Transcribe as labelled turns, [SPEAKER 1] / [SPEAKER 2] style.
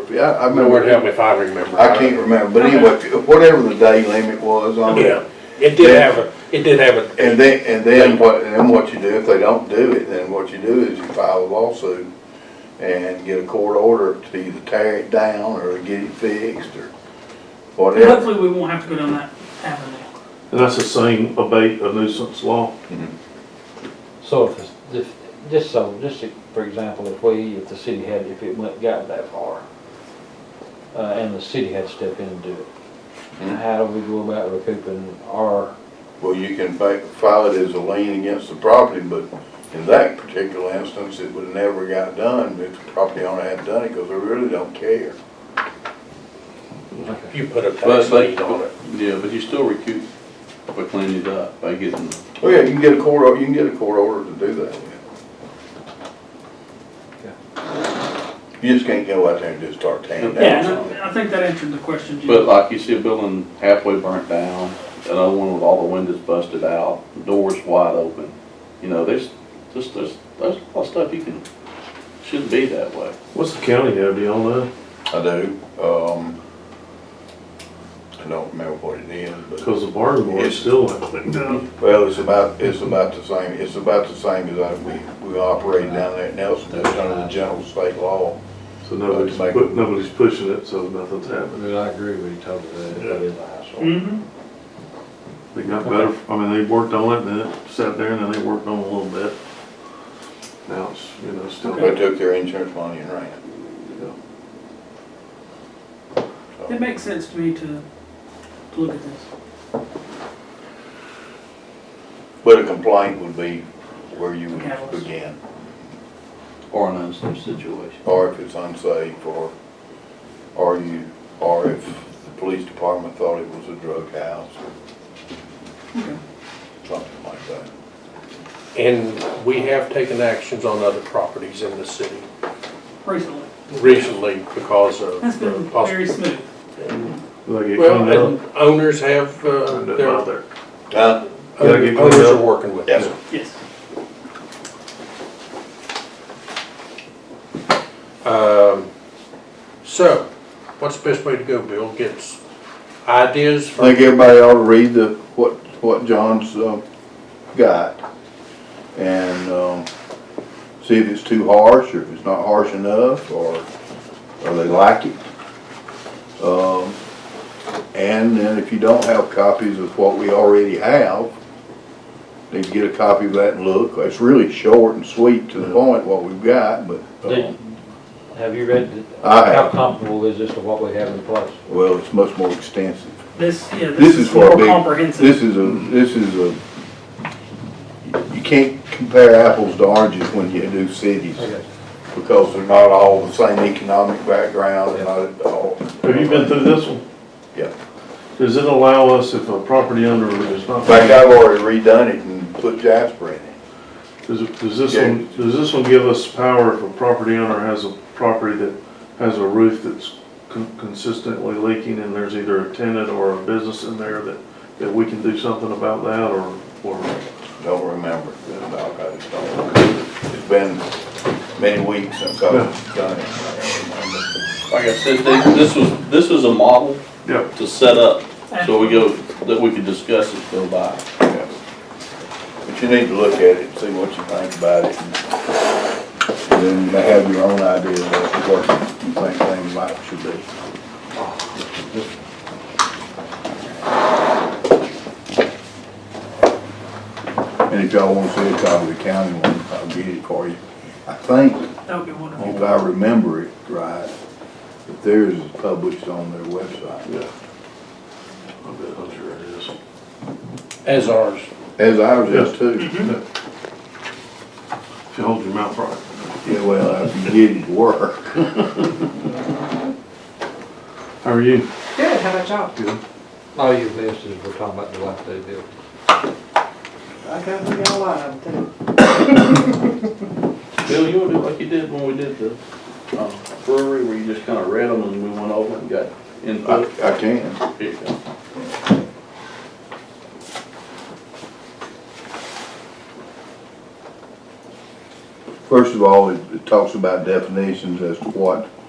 [SPEAKER 1] No, word
[SPEAKER 2] remember,
[SPEAKER 1] help me if I remember.
[SPEAKER 3] I can't remember, but anyway, if- whatever the day limit was on
[SPEAKER 1] Yeah,
[SPEAKER 3] it.
[SPEAKER 1] it did have a, it did have a.
[SPEAKER 3] And then, and then what, and then what you do, if they don't do it, then what you do is you file a lawsuit and get a court order to either tear it down or get it fixed or whatever.
[SPEAKER 4] Hopefully, we won't have to go down that avenue.
[SPEAKER 5] And that's the same abate a nuisance law?
[SPEAKER 2] So if, it's- if, just so, just for example, if we, if the city had, if it went, got that far, uh, and the city had to step in and do it,
[SPEAKER 3] Hmm.
[SPEAKER 2] how do we go about recouping our,
[SPEAKER 3] Well, you can fa- file it as a lien against the property, but in that particular instance, it would never got done if the property owner hadn't done it, because they really don't care.
[SPEAKER 1] You put a tax
[SPEAKER 6] But,
[SPEAKER 1] lien
[SPEAKER 6] but,
[SPEAKER 1] on it.
[SPEAKER 6] yeah, but you still recoup by cleaning it up, by getting,
[SPEAKER 3] Oh, yeah, you can get a court, or- you can get a court order to do that. yeah. You just can't go out there and just start tearing
[SPEAKER 4] Yeah, and
[SPEAKER 3] down.
[SPEAKER 4] I- I think that answered the question, Jim.
[SPEAKER 6] but like you see a building halfway burnt down, another one with all the windows busted out, doors wide open. You know, there's, just, there's, there's a lot of stuff you can, shouldn't be that way.
[SPEAKER 5] What's the county have, do y'all know?
[SPEAKER 3] I do, um, I don't remember what it is, but,
[SPEAKER 5] Because the barn board
[SPEAKER 3] Yes.
[SPEAKER 5] still hasn't done.
[SPEAKER 3] well, it's about, it's about the same, it's about the same as I, we, we operate down there at Nelson, it's under the general state law.
[SPEAKER 5] So nobody's,
[SPEAKER 3] Like-
[SPEAKER 5] pu- nobody's pushing it, so nothing's happening.
[SPEAKER 2] I agree with you totally, that is a hassle.
[SPEAKER 4] Mhm.
[SPEAKER 5] They got better, I mean, they worked on it, and then it sat there, and then they worked on it a little bit. Now it's, you know, still.
[SPEAKER 3] They took their insurance money and ran it.
[SPEAKER 4] It makes sense to me to, to look at this.
[SPEAKER 3] But a complaint would be where you would
[SPEAKER 4] Catalyst.
[SPEAKER 3] begin,
[SPEAKER 6] Or an unsafe situation.
[SPEAKER 3] or if it's unsafe, or, or you, or if the police department thought it was a drug house,
[SPEAKER 4] Okay.
[SPEAKER 3] or something like that.
[SPEAKER 1] And we have taken actions on other properties in the city
[SPEAKER 4] Recently.
[SPEAKER 1] recently because of
[SPEAKER 4] That's
[SPEAKER 1] the
[SPEAKER 4] been
[SPEAKER 3] uh,
[SPEAKER 4] very
[SPEAKER 1] possible.
[SPEAKER 4] smooth.
[SPEAKER 5] Like it
[SPEAKER 1] Well,
[SPEAKER 5] cleaned up.
[SPEAKER 1] and owners have, uh,
[SPEAKER 5] Turned it
[SPEAKER 1] their,
[SPEAKER 5] out there.
[SPEAKER 3] Huh?
[SPEAKER 5] Gotta get
[SPEAKER 1] owners
[SPEAKER 5] cleaned
[SPEAKER 1] are
[SPEAKER 5] up.
[SPEAKER 1] working with
[SPEAKER 3] Yes.
[SPEAKER 1] it.
[SPEAKER 4] Yes.
[SPEAKER 1] Um, so, what's the best way to go, Bill? Get s- ideas
[SPEAKER 3] I think
[SPEAKER 1] from,
[SPEAKER 3] everybody ought to read the, what, what John's, um, got. And, um, see if it's too harsh, or if it's not harsh enough, or, or they like it. Um, and then if you don't have copies of what we already have, then get a copy of that and look. It's really short and sweet to the point what we've got, but, um,
[SPEAKER 2] Did- Have you read, th-
[SPEAKER 3] I have.
[SPEAKER 2] how comparable is this to what we have in place?
[SPEAKER 3] well, it's much more extensive.
[SPEAKER 4] This, yeah,
[SPEAKER 3] This
[SPEAKER 4] this
[SPEAKER 3] is
[SPEAKER 4] is
[SPEAKER 3] for a
[SPEAKER 4] more
[SPEAKER 3] big-
[SPEAKER 4] comprehensive.
[SPEAKER 3] This is a, this is a, you can't compare apples to oranges when you do cities,
[SPEAKER 2] Okay.
[SPEAKER 3] because they're not all the same economic background, they're not at all.
[SPEAKER 5] Have you been through this one?
[SPEAKER 3] Yeah.
[SPEAKER 5] Does it allow us if a property owner is not?
[SPEAKER 3] In fact, I've already redone it and put Jasper in it.
[SPEAKER 5] Does, it- does this one, does this one give us power if a property owner has a property that has a roof that's con- consistently leaking and there's either a tenant or a business in there that, that we can do something about that or, or?
[SPEAKER 3] Don't remember, No, I just don't remember. It's been many weeks since I've done it.
[SPEAKER 6] Like I said, they- this was, this was a model
[SPEAKER 5] Yeah.
[SPEAKER 6] to set up, so we go, that we could discuss it, go by.
[SPEAKER 3] Yeah. But you need to look at it, see what you think about it. and Then you may have your own idea of what you think things might should be. And if y'all wanna see a copy of the county one, I'll get it for you. I think,
[SPEAKER 4] That would be wonderful.
[SPEAKER 3] if I remember it right, that theirs is published on their website.
[SPEAKER 5] Yeah. I bet, I'm sure it is.
[SPEAKER 1] as ours.
[SPEAKER 3] As ours is too.
[SPEAKER 5] Hmm? If you hold your mouth right.
[SPEAKER 3] Yeah, well, if you did it work.
[SPEAKER 5] How are you?
[SPEAKER 7] Good, how about y'all?
[SPEAKER 5] Good.
[SPEAKER 2] All you missed is we're talking about the life they built.
[SPEAKER 7] I got we got a lot of them too.
[SPEAKER 6] Bill, you wanna do like you did when we did the uh, brewery, where you just kinda read them and we went over and got
[SPEAKER 3] I,
[SPEAKER 6] input?
[SPEAKER 3] I can.
[SPEAKER 6] Here you go.
[SPEAKER 3] First of all, it, it talks about definitions as to what